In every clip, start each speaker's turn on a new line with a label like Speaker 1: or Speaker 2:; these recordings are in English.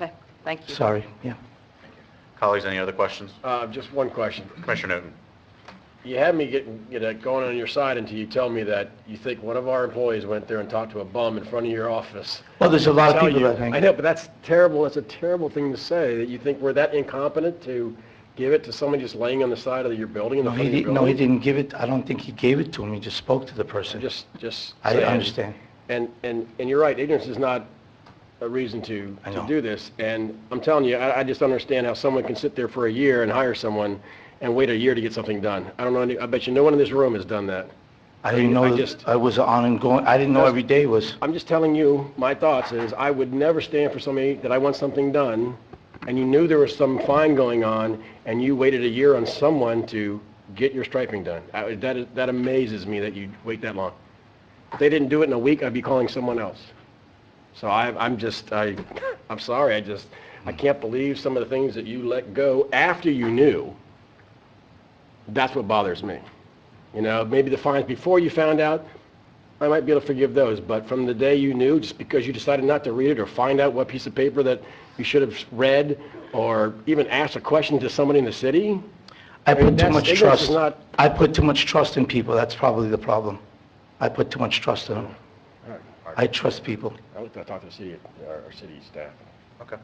Speaker 1: Okay, thank you.
Speaker 2: Sorry, yeah.
Speaker 3: Colleagues, any other questions?
Speaker 4: Uh, Just one question.
Speaker 3: Commissioner Newton?
Speaker 4: You had me getting, you know, going on your side until you tell me that you think one of our employees went there and talked to a bum in front of your office.
Speaker 2: Well, there's a lot of
Speaker 4: Tell
Speaker 2: people
Speaker 4: you-
Speaker 2: that think.
Speaker 4: I know, but that's terrible. That's a terrible thing to say, that you think we're that incompetent to give it to someone just laying on the side of your building in the
Speaker 2: No,
Speaker 4: front
Speaker 2: he
Speaker 4: of your
Speaker 2: didn't,
Speaker 4: building?
Speaker 2: no, he didn't give it, I don't think he gave it to him, he just spoke to the person.
Speaker 4: Just, just.
Speaker 2: I
Speaker 4: saying.
Speaker 2: understand.
Speaker 4: And, and, and you're right, ignorance is not a reason to,
Speaker 2: I
Speaker 4: to
Speaker 2: know.
Speaker 4: do this. And I'm telling you, I, I just don't understand how someone can sit there for a year and hire someone and wait a year to get something done. I don't know, any- I bet you no one in this room has done that.
Speaker 2: I didn't
Speaker 4: I
Speaker 2: know,
Speaker 4: just-
Speaker 2: that I was on and going, I didn't know
Speaker 4: Just-
Speaker 2: every day was,
Speaker 4: I'm just telling you, my thoughts is, I would never stand for somebody that I want something done, and you knew there was some fine going on, and you waited a year on someone to get your striping done. I- That, is- that amazes me that you wait that long. If they didn't do it in a week, I'd be calling someone else. So I, I'm just, I, I'm sorry, I just, I can't believe some of the things that you let go after you knew. That's what bothers me. You know, maybe the fines before you found out, I might be able to forgive those, but from the day you knew, just because you decided not to read it or find out what piece of paper that you should have read or even asked a question to somebody in the city,
Speaker 2: I put too
Speaker 4: that's-
Speaker 2: much
Speaker 4: ignorance is
Speaker 2: trust.
Speaker 4: not-
Speaker 2: I put too much trust in people, that's probably the problem. I put too much trust in them. I trust people.
Speaker 4: I would talk to the city, our, our city staff.
Speaker 3: Okay.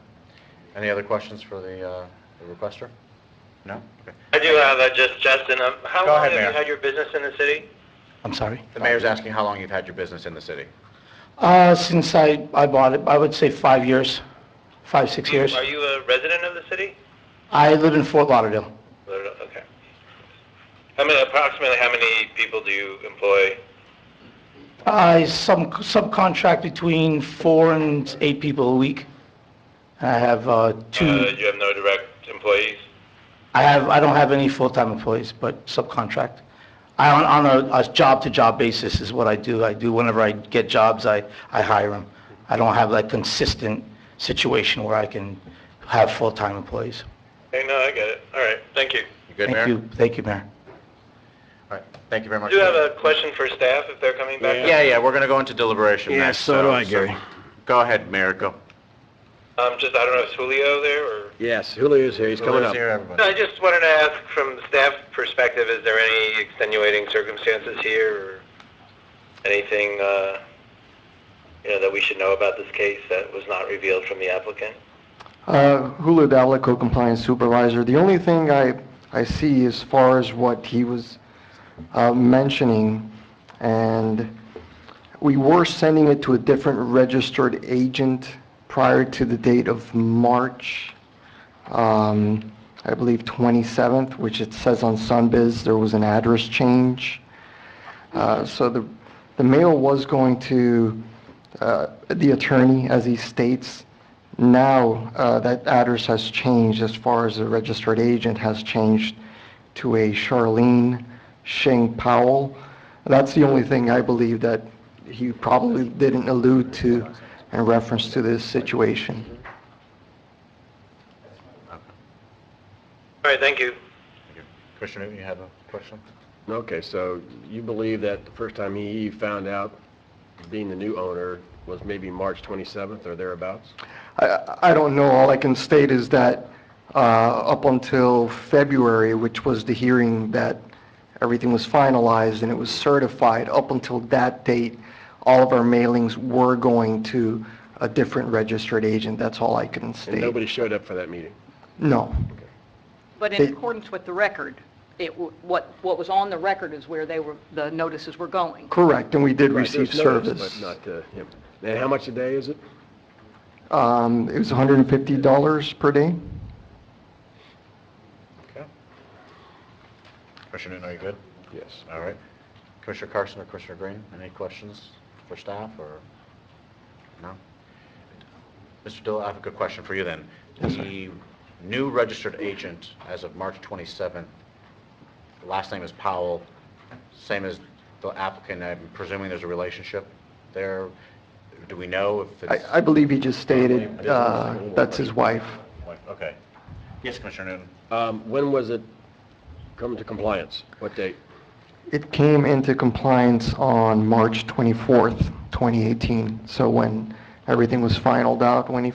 Speaker 3: Any other questions for the uh, the requester? No? Okay.
Speaker 5: I do have uh, just Justin. Um, how
Speaker 3: Go
Speaker 5: long
Speaker 3: ahead,
Speaker 5: have
Speaker 3: Mayor.
Speaker 5: you had your business in the city?
Speaker 2: I'm sorry.
Speaker 3: The mayor's asking how long you've had your business in the city.
Speaker 2: Uh, since I, I bought it, I would say five years, five, six years.
Speaker 5: Are you a resident of the city?
Speaker 2: I live in Fort Lauderdale.
Speaker 5: Okay. How many, approximately how many people do you employ?
Speaker 2: I sub Uh, subcontract between four and eight people a week. I have, uh,
Speaker 5: Uh,
Speaker 2: two,
Speaker 5: you have no direct employees?
Speaker 2: I have, I don't have any full-time employees, but subcontract. I, on, on a, a job-to-job basis is what I do. I do, whenever I get jobs, I, I hire them. I don't have that consistent situation where I can have full-time employees.
Speaker 5: Hey, no, I get it. All right, thank you.
Speaker 3: You good, Mayor?
Speaker 2: Thank you, thank you, Mayor.
Speaker 3: All right, thank you very
Speaker 5: I
Speaker 3: much.
Speaker 5: do have a question for staff if they're coming back.
Speaker 3: Yeah, yeah, we're going to go into deliberation
Speaker 4: Yeah,
Speaker 3: next.
Speaker 4: so do I, Gary.
Speaker 3: Go ahead, Mayor, go.
Speaker 5: Um, just, I don't know, is Julio there or?
Speaker 4: Yes, Julio is here, he's coming
Speaker 3: Let's
Speaker 4: up.
Speaker 3: hear
Speaker 5: No,
Speaker 3: everybody.
Speaker 5: I just wanted to ask from the staff perspective, is there any extenuating circumstances here or anything, uh, you know, that we should know about this case that was not revealed from the applicant?
Speaker 6: Uh, Hulu Dalico Compliance Supervisor. The only thing I, I see as far as what he was uh, mentioning, and we were sending it to a different registered agent prior to the date of March, um, I believe 27th, which it says on Sunbiz, there was an address change. Uh, So the, the mail was going to uh, the attorney, as he states. Now, uh, that address has changed as far as the registered agent has changed to a Charlene Shing Powell. That's the only thing I believe that he probably didn't allude to in reference to this situation.
Speaker 5: All right, thank you.
Speaker 3: Thank you. Commissioner Newton, you had a question?
Speaker 4: Okay, so you believe that the first time he found out, being the new owner, was maybe March 27th or thereabouts?
Speaker 6: I, I don't know, all I can state is that uh, up until February, which was the hearing that everything was finalized and it was certified, up until that date, all of our mailings were going to a different registered agent, that's all I can
Speaker 4: And
Speaker 6: state.
Speaker 4: nobody showed up for that meeting?
Speaker 6: No,
Speaker 1: But in
Speaker 6: They-
Speaker 1: accordance with the record, it, w- what, what was on the record is where they were, the notices were going.
Speaker 6: correct, and we did
Speaker 4: Right,
Speaker 6: receive
Speaker 4: there's notice,
Speaker 6: service.
Speaker 4: But not to him. And how much a day is it?
Speaker 6: Um, It was $150 per day?
Speaker 3: Okay. Commissioner Newton, are you good?
Speaker 4: Yes.
Speaker 3: All right. Commissioner Carson or Commissioner Green, any questions for staff or, no? Mr. Dill, I have a good question for you then. The new registered agent as of March 27th, the last name is Powell, same as the applicant, I'm presuming there's a relationship there. Do we know if it's?
Speaker 6: I, I believe he just stated uh, that's his wife.
Speaker 3: Okay. Yes, Commissioner Newton?
Speaker 4: Um, When was it come to compliance? What date?
Speaker 6: It came into compliance on March 24th, 2018, so when everything was finalized out, when he